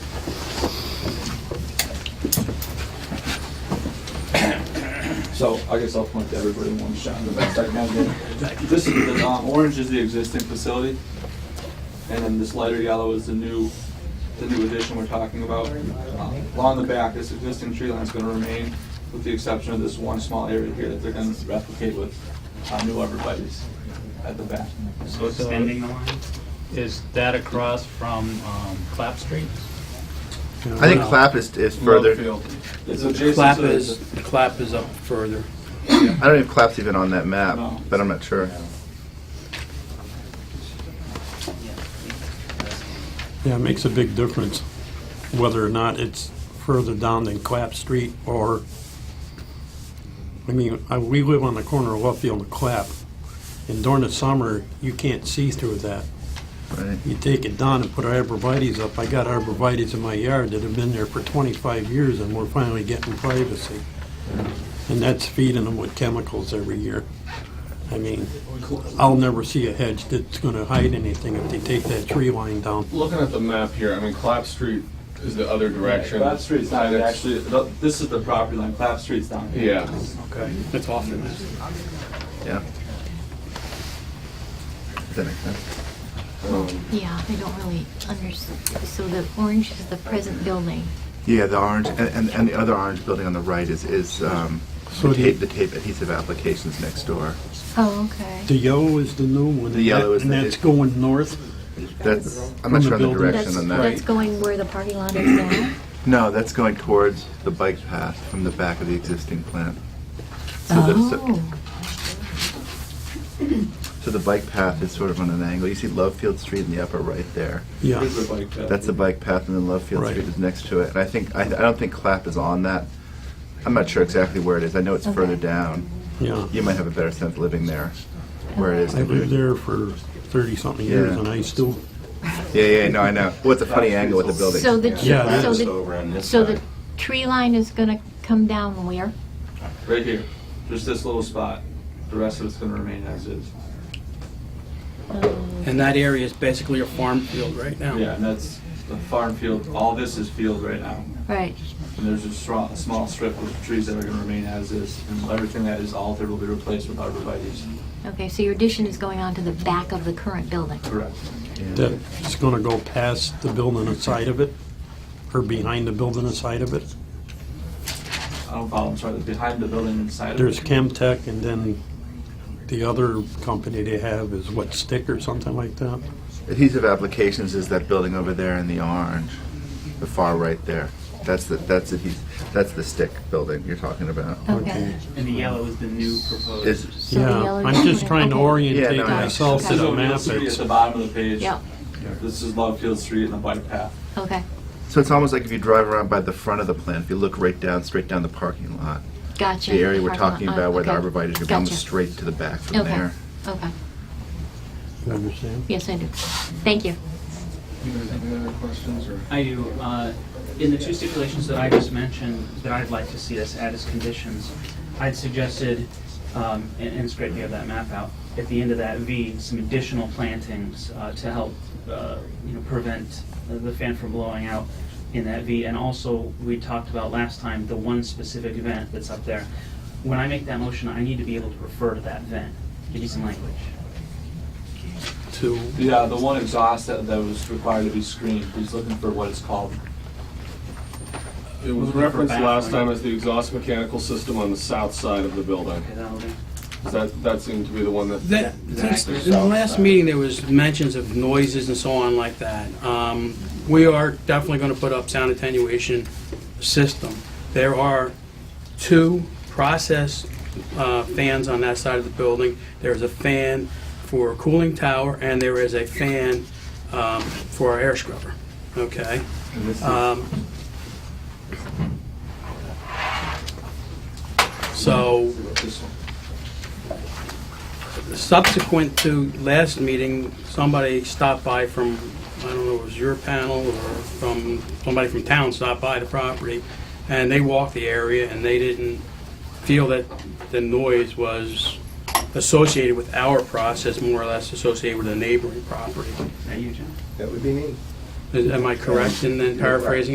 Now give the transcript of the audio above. So I guess I'll point to everybody in one shot, the best I can do. This is, the um, orange is the existing facility, and then this lighter yellow is the new, the new addition we're talking about. Um, Along the back, this existing tree line's gonna remain, with the exception of this one small area here that they're gonna replicate with uh, new arborvitae's at the back. So extending the line? Is that across from um, Clap Street? I think clap is, is further. Field. It's adjacent Clap to the- is, clap is up further. I don't even clap's even on that map, No. but I'm not sure. Yeah, it makes a big difference whether or not it's further down than Clap Street or, I mean, I- we live on the corner of Luffield and Clap, and during the summer, you can't see through that. Right. You take it down and put arborvitae's up. I got arborvitae's in my yard that have been there for 25 years, and we're finally getting privacy. And that's feeding them with chemicals every year. I mean, I'll never see a hedge that's going to hide anything if they take that tree line down. Looking at the map here, I mean, Clap Street is the other direction. Clap Street's not And it's- actually, th- this is the property line, Clap Street's down here. Yeah, Okay. That's off the map. Yeah. Does that make sense? Yeah, I don't really understand. So the orange is the present building. Yeah, the orange and, and, and the other orange building on the right is is um, So the the- tape the tape adhesive applications next door. Oh, okay. The yellow is the new one. The yellow is And the- that's going north. That's I'm From not the sure on the building. direction That's, on that's that. going where the parking lot is now? No, that's going towards the bike path from the back of the existing plant. So, the, so, Oh, so the bike path is sort of on an angle. You see Lovefield Street in the upper right there. Yeah. Here's the bike path. That's the bike path, and then Lovefield Right. Street is next to it. And I think I, I don't think Clap is on that. I'm not sure exactly where it is. I know it's further down. Yeah. You might have a better sense living there where it is. I lived there for 30 something years Yeah. and I still, Yeah, yeah, no, I know. Well, it's a funny angle with the building. so the, Yeah, that so is the, Um, so the tree line is gonna come down where? Right here, just this little spot. The rest of it's gonna remain as is. And that area is basically a farm field right now. Yeah, and that's the farm field, all this is field right now. Right, And there's a strong, a small strip of trees that are gonna remain as is, and everything that is altered will be replaced with arborvitae's. okay, so your addition is going on to the back of the current building? Correct. that's going to go past the building inside of it or behind the building inside of it. I don't follow, I'm sorry, behind the building inside of it. There's Chemtech and then the other company they have is what, Stick or something like that? Adhesive applications is that building over there in the orange, the far right there. That's the that's adhesive. That's the stick building you're talking about. Okay. And the yellow is the new proposed. Is So the Yeah, yellow I'm is- just trying to okay. Yeah, orientate no, I- myself to This is the O'Neill map. Street at It's- the bottom of the page. Yeah, This is Lovefield Street and the bike path. okay, so it's almost like if you drive around by the front of the plant, if you look right down, straight down the parking lot, gotcha. the area we're Parking lot. talking Uh, about where the okay. arborvitae are going Gotcha. straight to the back from Okay, there. okay, You understand? yes, I do. Thank you. You guys have any other questions or? I do. uh, In the two stipulations that I just mentioned, that I'd like to see us add as conditions, I'd suggested, um, and and it's great we have that map out, at the end of that V, some additional plantings uh, to help, uh, you know, prevent the fan from blowing out in that V. And also, we talked about last time, the one specific event that's up there. When I make that motion, I need to be able to refer to that event. Give you some language. To, Yeah, the one exhaust that, that was required to be screened, he's looking for what it's called. It was referenced last time as the exhaust mechanical system on the south side of the building. Okay, that'll do. Does That, that seemed to be the one that, That, that's- in the last meeting, there was mentions of noises and so on like that. Um, We are definitely going to put up sound attenuation system. There are two process uh, fans on that side of the building. There is a fan for a cooling tower, and there is a fan um, for our air scrubber, okay? Um, So This one. subsequent to last meeting, somebody stopped by from, I don't know, it was your panel or from, somebody from town stopped by the property, and they walked the area, and they didn't feel that the noise was associated with our process, more or less associated with a neighboring property. Is that you, John? That would be me. Is- Am I correct in then paraphrasing